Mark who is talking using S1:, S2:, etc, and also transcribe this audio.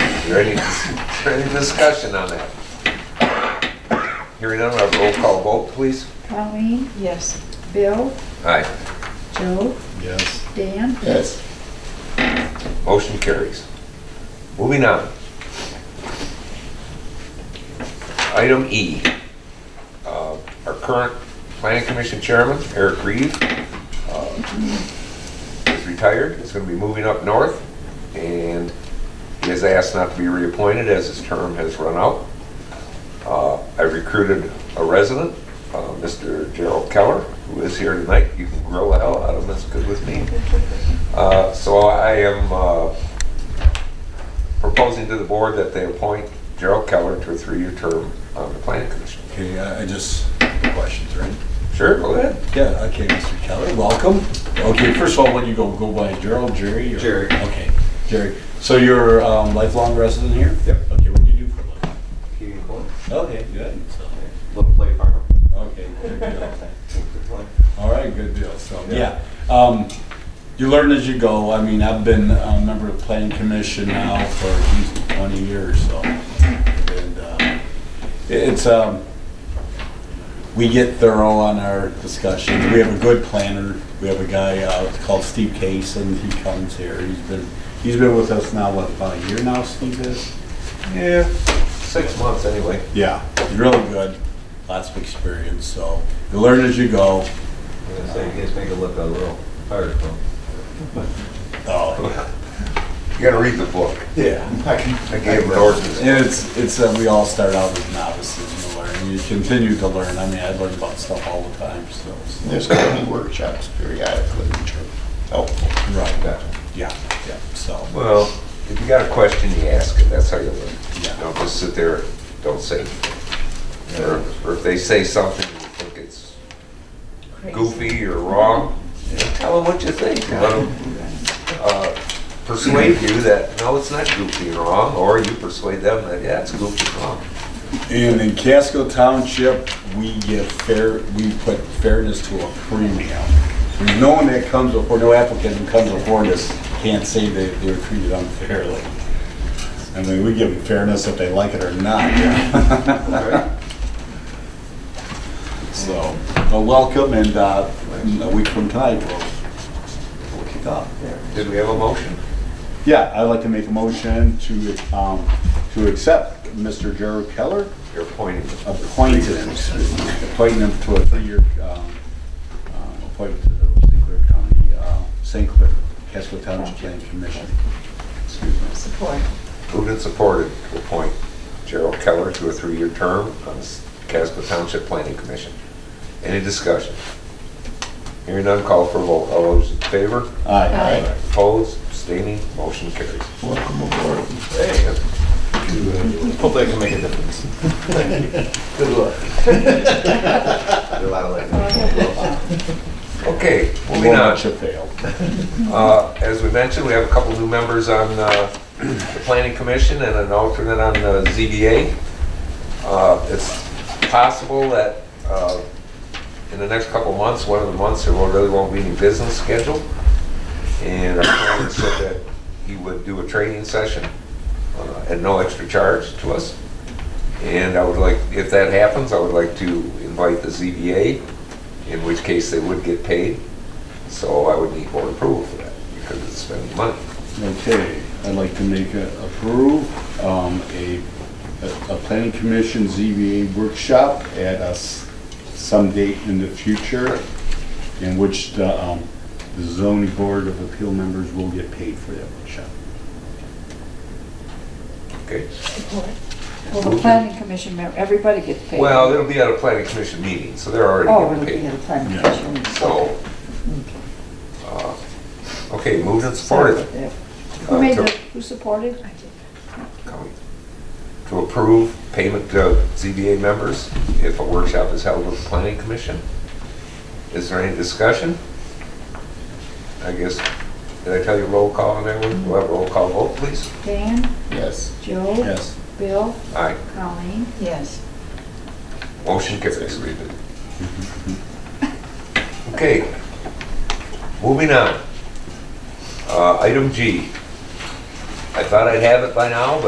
S1: Is there any, is there any discussion on that? Hearing none, we'll have a roll call vote, please.
S2: Colleen,
S3: Yes.
S2: Bill,
S1: Aye,
S2: Joe,
S4: Yes.
S2: Dan,
S4: Yes.
S1: motion carries. Moving on. Item E. Uh, Our current planning commission chairman, Eric Reed, uh, is retired, is going to be moving up north, and he has asked not to be reappointed as his term has run out. Uh, I recruited a resident, uh, Mr. Gerald Keller, who is here tonight. You can grill the hell out of him, that's good with me. Uh, So I am uh, proposing to the board that they appoint Gerald Keller to a three-year term on the planning commission.
S5: Okay, I I just, questions, right?
S1: Sure, go ahead.
S5: Yeah, okay, Mr. Keller, welcome. Okay, first of all, when you go, go by Gerald, Jerry? or-
S6: Jerry.
S5: Okay, Jerry. So you're um, lifelong resident here?
S6: Yep.
S5: Okay, what do you do for a living?
S6: Keating Court,
S5: Okay, good. So,
S6: Little Play Farm.
S5: Okay, good deal. All right, good deal, so, yeah. Um, You learn as you go. I mean, I've been a member of the planning commission now for geez, 20 years, so. and uh, it- It's, um, we get thorough on our discussions. We have a good planner. We have a guy uh, called Steve Case, and he comes here. He's been, he's been with us now, what, about a year now, Steve is?
S1: Yeah. Six months, anyway.
S5: Yeah, he's really good, lots of experience, so you learn as you go.
S6: I'm gonna say, you guys make it look a little hard, though.
S5: Oh,
S1: You gotta read the book.
S5: Yeah.
S1: I gave him an ordinance.
S5: And it's, it's, uh, we all start out as novices and learn, you continue to learn, I mean, I learn about stuff all the time, so.
S4: There's county workshops periodically, which are helpful.
S5: Right, yeah, yeah, so,
S1: Well, if you got a question, you ask it, that's how you learn.
S5: Yeah.
S1: Don't just sit there, don't say anything. Or or if they say something you think it's goofy or wrong, you know, tell them what you think. Let them persuade you that, no, it's not goofy and wrong, or you persuade them that, yeah, it's goofy and wrong.
S5: and in Casco Township, we give fair, we put fairness to a premium. There's no one that comes before, no applicant who comes before us can't say they, they were treated unfairly. I mean, we give them fairness if they like it or not. So, well, welcome, and uh, a week from tonight, we'll, we'll kick off.
S1: Did we have a motion?
S5: Yeah, I'd like to make a motion to, um, to accept Mr. Gerald Keller,
S1: You're appointing.
S5: appointed, appointing him to a three-year um, um, appointment to the St. Clair County, uh, St. Clair, Casco Township Planning Commission. Excuse me.
S3: Support.
S1: Moved and supported to appoint Gerald Keller to a three-year term on the Casco Township Planning Commission. Any discussion? Hearing none, call for a vote. All those in favor?
S5: Aye.
S1: Opposed, abstaining, motion carries.
S4: Welcome aboard.
S1: Hey, that's
S6: Hopefully I can make a difference.
S4: Good luck.
S6: There's a lot of
S2: Oh,
S6: like.
S1: Okay,
S5: Will
S1: moving on.
S5: not you fail.
S1: Uh, As we mentioned, we have a couple new members on uh, the Planning Commission and an alternate on the ZBA. Uh, It's possible that uh, in the next couple months, one of the months, there won't- really won't be any business scheduled. And our planner said that he would do a training session uh, at no extra charge to us. And I would like, if that happens, I would like to invite the ZBA, in which case they would get paid. So I would need board approval for that because it's spending money.
S5: Okay, I'd like to make a, approve, um, a, a a planning commission ZBA workshop at us some date in the future in which the, um, the zoning board of appeal members will get paid for that workshop.
S1: Okay?
S3: Support.
S2: Well, the planning commission, member, everybody gets paid.
S1: Well, it'll be at a planning commission meeting, so they're
S2: Oh,
S1: already
S2: it'll be
S1: getting
S2: at
S1: paid.
S2: the planning
S5: Yeah.
S2: commission.
S1: So, uh, okay, moved and supported.
S2: Sorry.
S1: Uh,
S2: Who made
S1: to-
S2: the, who supported? I did.
S1: coming. To approve payment to ZBA members if a workshop is held with the planning commission. Is there any discussion? I guess, did I tell you roll call on that one? We'll have roll call vote, please.
S2: Dan,
S4: Yes.
S2: Joe.
S5: Yes.
S2: Bill,
S1: Aye.
S2: Colleen,
S3: Yes.
S1: Motion carries. Okay, moving on. Uh, Item G. I thought I'd have it by now, but